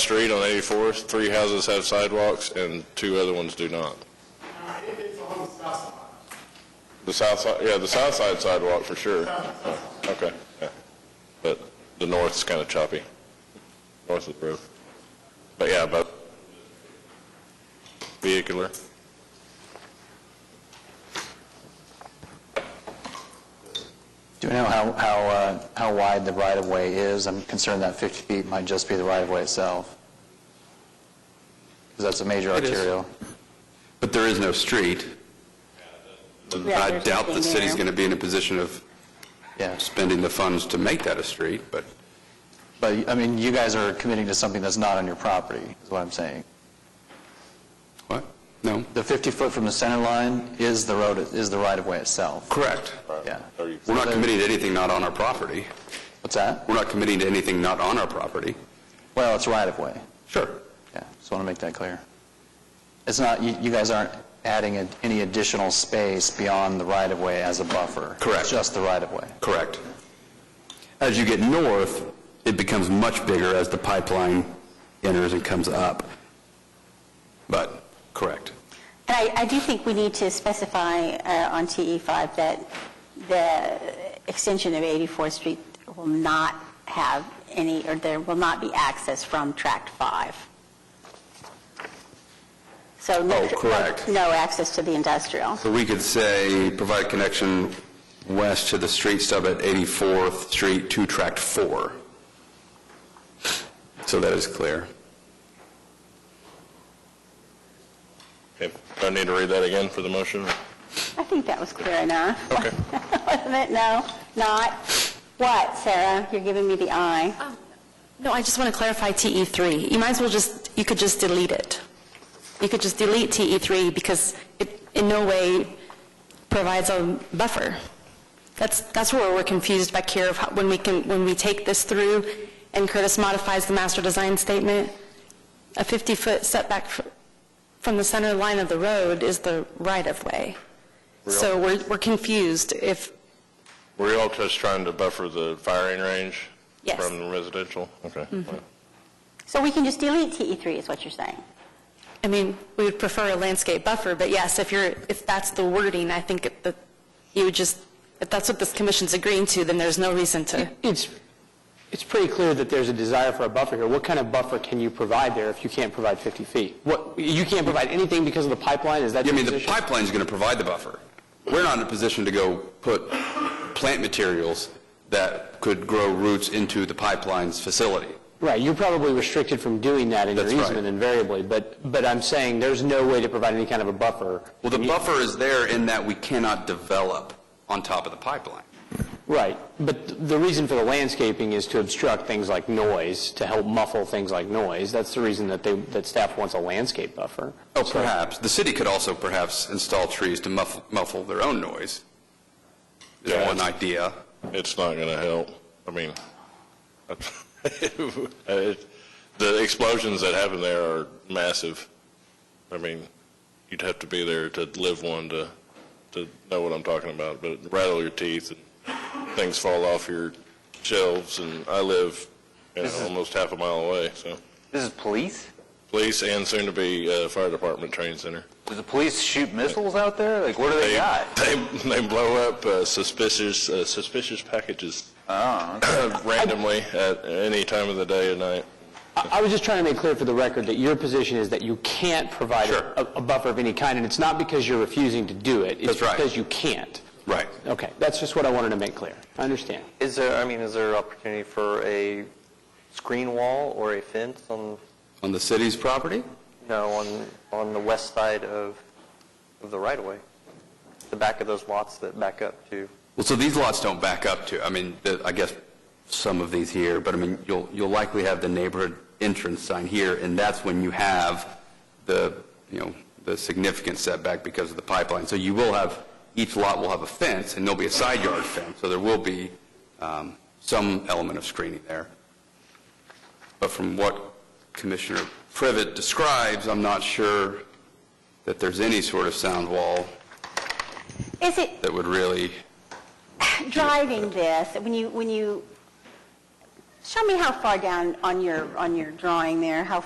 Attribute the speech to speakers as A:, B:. A: street on 84th, three houses have sidewalks and two other ones do not.
B: Now, if it's on the south side,
A: The south side, yeah, the south side sidewalk for sure. Okay, yeah. But the north's kind of choppy, north of the road. But yeah, but vehicular.
C: Do we know how, how, uh, how wide the right-of-way is? I'm concerned that 50 feet might just be the right-of-way itself. Because that's a major
D: It is.
C: arterial.
D: But there is no street.
E: Yeah,
D: I
E: there's
D: doubt the
E: nothing
D: city's
E: there.
D: going to be in a position of
C: Yeah.
D: spending the funds to make that a street, but
C: But, I mean, you guys are committing to something that's not on your property, is what I'm saying.
D: what? No?
C: The 50-foot from the center line is the road, is the right-of-way itself.
D: Correct.
C: Yeah.
D: We're not committing to anything not on our property.
C: What's that?
D: We're not committing to anything not on our property.
C: Well, it's right-of-way.
D: Sure.
C: Yeah, just want to make that clear. It's not, you, you guys aren't adding a- any additional space beyond the right-of-way as a buffer.
D: Correct.
C: It's Just the right-of-way.
D: Correct. As you get north, it becomes much bigger as the pipeline enters and comes up. But, correct.
E: And I, I do think we need to specify uh, on TE5 that the extension of 84th Street will not have any, or there will not be access from Tract 5. So no...
D: Oh, correct.
E: No access to the industrial.
D: So we could say, provide connection west to the street stub at 84th Street to Tract 4. So that is clear.
A: Okay. Do I need to read that again for the motion?
E: I think that was clear enough.
A: Okay.
E: Wasn't it? No? Not? What, Sarah? You're giving me the eye.
F: No, I just want to clarify TE3. You might as well just, you could just delete it. You could just delete TE3 because it in no way provides a buffer. That's, that's where we're confused back here, of how- when we can, when we take this through and Curtis modifies the master design statement, a 50-foot setback fr- from the center line of the road is the right-of-way. So we're, we're confused if,
A: Were you all just trying to buffer the firing range?
F: Yes. Mm-hmm.
A: From the residential? Okay.
E: So we can just delete TE3, is what you're saying?
F: I mean, we would prefer a landscape buffer, but yes, if you're, if that's the wording, I think it- that you would just, if that's what this commission's agreeing to, then there's no reason to.
G: It's, it's pretty clear that there's a desire for a buffer here. What kind of buffer can you provide there if you can't provide 50 feet? What, you can't provide anything because of the pipeline, is that
D: I
G: your
D: mean, the
G: position?
D: pipeline's going to provide the buffer. We're not in a position to go put plant materials that could grow roots into the pipeline's facility.
G: Right, you're probably restricted from doing that in your
D: That's right.
G: easement invariably, but, but I'm saying there's no way to provide any kind of a buffer.
D: Well, the buffer is there in that we cannot develop on top of the pipeline.
G: Right, but th- the reason for the landscaping is to obstruct things like noise, to help muffle things like noise. That's the reason that they, that staff wants a landscape buffer.
D: Oh,
G: So-
D: perhaps. The city could also perhaps install trees to muffle, muffle their own noise. Is
A: Yeah.
D: one idea.
A: It's not going to help. I mean, it- the explosions that happen there are massive. I mean, you'd have to be there to live one to, to know what I'm talking about, but it rattle your teeth and things fall off your shelves, and I live, you know, almost half a mile away, so.
H: This is police?
A: Police and soon-to-be uh, fire department training center.
H: Do the police shoot missiles out there? Like, what do they got?
A: They, they blow up uh, suspicious, uh, suspicious packages Uh-huh.
H: Oh, okay.
A: randomly at any time of the day or night.
G: I I was just trying to make clear for the record that your position is that you can't provide
D: Sure.
G: a a buffer of any kind, and it's not because you're refusing to do it.
D: That's right.
G: It's because you can't.
D: Right.
G: Okay, that's just what I wanted to make clear. I understand.
H: Is there, I mean, is there opportunity for a screen wall or a fence on,
D: On the city's property?
H: no, on, on the west side of, of the right-of-way? The back of those lots that back up to,
D: Well, so these lots don't back up to, I mean, the- I guess some of these here, but I mean, you'll, you'll likely have the neighborhood entrance sign here, and that's when you have the, you know, the significant setback because of the pipeline. So you will have, each lot will have a fence, and there'll be a side yard fence, so there will be um, some element of screening there. But from what Commissioner Privet describes, I'm not sure that there's any sort of sound wall
E: Is it,
D: that would really...
E: driving this, when you, when you, show me how far down on your, on your drawing there, how